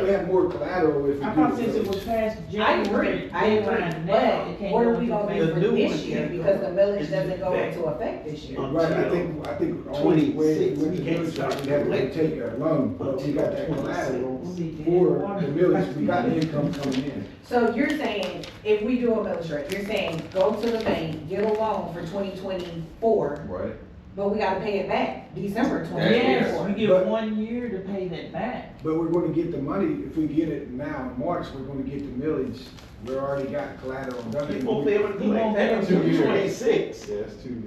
have more collateral if you do. I thought since it was past I January. agree, I deadline agree, now, it but can't what are go we into gonna effect. do for The new this one year, can't go. because the millage It's doesn't go back. into effect this year. Um, Right, I think, I think the only way, 26, when the we can't millage, start we have to collecting take that loan, but we got that until 26. collateral We'll be dead for the water. millage, we got income coming in. So you're saying, if we do a millage rate, you're saying, go to the bank, get a loan for twenty twenty-four, Right. but we gotta pay it back December twenty Yes, twenty-four. we But- get one year to pay that back. But we're gonna get the money, if we get it now in March, we're gonna get the millage, we already got collateral done. You won't be able to You collect won't be that able to until do you're it. twenty-six. Yeah, it's two,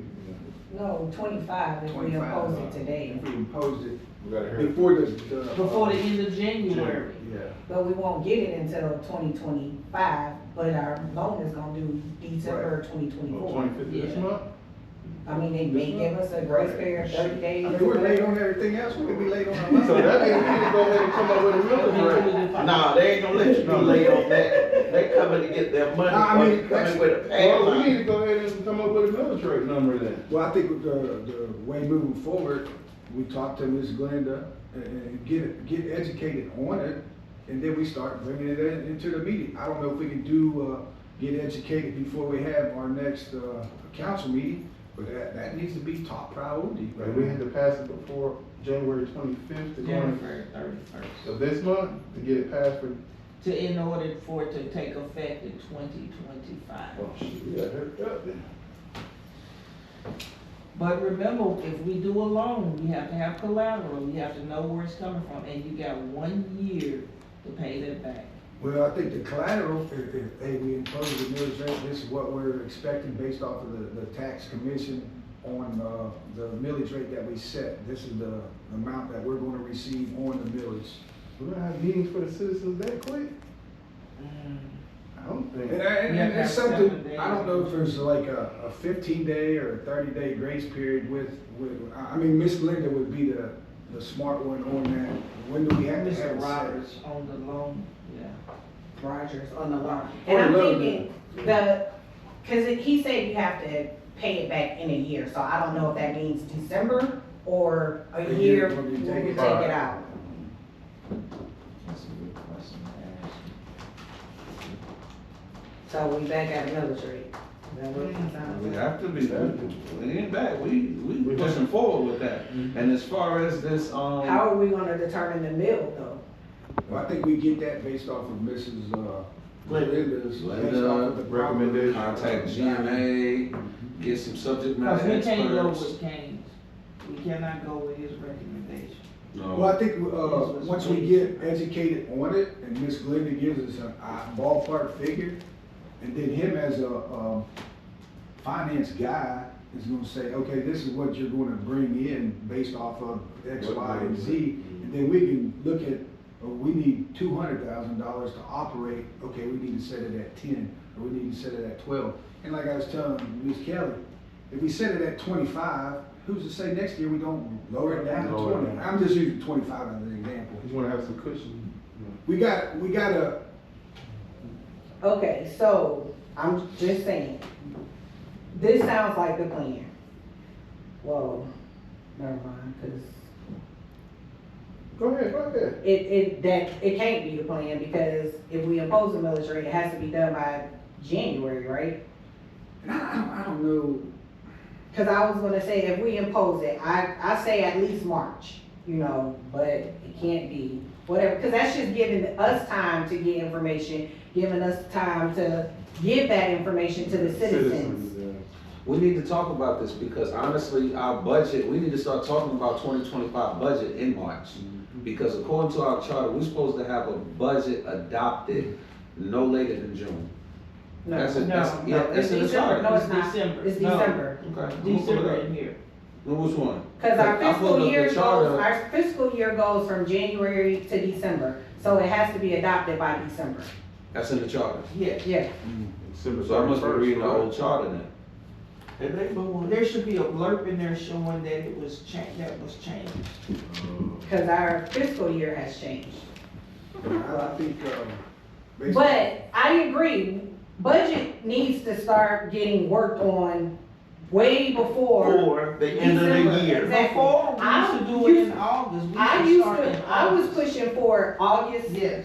No, twenty-five if we Twenty-five. impose it today, If we impose it we gotta hurry. before the, the. uh, Before the end of January. Yeah. but we won't get it until twenty twenty-five, but our loan is gonna do December twenty twenty-four. Oh, Twenty-fifth this Yeah. month? I mean, they may give us a grace period, thirty I days. mean, we're late on everything else, we could be late on our loan. So that means we need to go ahead and come up with a millage rate. Nah, they ain't gonna let you be late on that. They coming to get their money, Nah, I or mean, you coming that's- with a Well, we need padlock. to go ahead and come up with a millage rate number then. Well, I think with the, the way moving forward, we talk to Ms. Glenda and- and get, it- get educated on it. And then we start bringing it in, into the meeting. I don't know if we can do, uh, get educated before we have our next, uh, council meeting, but that, that needs to be top priority. Like, we had to pass it before January twenty-fifth to go in January thirty-first. of this month to get it passed for, To, in order for it to take effect in twenty twenty-five. oh, shit, we got hurry up then. But remember, if we do a loan, we have to have collateral, you have to know where it's coming from, and you got one year to pay that back. Well, I think the collateral, if, if, hey, we impose the millage rate, this is what we're expecting based off of the, the tax commission on, uh, the millage rate that we set. This is the amount that we're gonna receive on the millage. We're gonna have meetings for the citizens that quick? Mm. I don't think. And, I- and, and it's Yeah, something, I seven don't days. know if there's like a, a fifteen day or a thirty day grace period with, with, I, I mean, Miss Linda would be the, the smart one on that. When do we have to have Mr. it set? Roberts on the loan, yeah. Rogers on the loan. Or And I'm a little thinking, the, cause it- he said you have to pay it back in a year, so I don't know if that means December or a A year year when when you we take take it it out. out. That's a good question to ask. So we back at Mm-hmm. the military. We have to be, we ain't back, we, we We pushing have- forward with that. And as far as this, um, How are we gonna determine the mill though? Well, I think we get that based off of Mrs. uh, Linda. Linda's. based off of the Linda, proper- recommendation. contact GMA, get some subject Cause matter we can't go experts. with Kane's, we cannot go with his recommendation. Well, Um, No, I think, uh, once we get educated on it, and Miss Glinda gives us a a ballpark figure, and then him as a, um, finance guy is gonna say, okay, this is what you're gonna bring in based off of X, What Y, and numbers? Z, and then we can look at, oh, we need two hundred thousand dollars to operate, okay, we need to set it at ten, or we need to set it at twelve. And like I was telling Ms. Kelly, if we set it at twenty-five, who's to say next year we don't lower it down to Lower it twenty? down. I'm just using twenty-five as an example. You wanna have some cushion. We got, we got a, Okay, so I'm just saying, this sounds like the plan. Whoa, never mind, cause Go ahead, go ahead. It, it, that, it can't be the plan, because if we impose a military, it has to be done by January, right? and I, I don't- I don't know, Cause I was gonna say, if we impose it, I, I say at least March, you know, but it can't be, whatever, cause that's just giving us time to get information, giving us time to give that information to the citizens. we need to talk about this because honestly, our budget, we need to start talking about twenty twenty-five budget in March. Mm-hmm. Because according to our charter, we're supposed to have a budget adopted no later than June. No, That's it. No, no, that's, yeah, that's it's in the December. charter. No, it's not, December. it's No. December, Okay. I'm gonna pull December it up. in here. Well, Which one? cause our I pulled up fiscal the year charter. goes, our fiscal year goes from January to December, so it has to be adopted by December, That's in the charter. Yeah, yeah. So I must be reading the old charter then. and they, but there should be a blurb in there showing that it was cha, that was changed. Cause our fiscal year has changed. Uh, I I think, um. based on- But I agree, budget needs to start getting worked on way before. Or the end of the December, year. Exactly. Before, we used to do it in August, we I should used start in to, I was August. pushing for August Yes.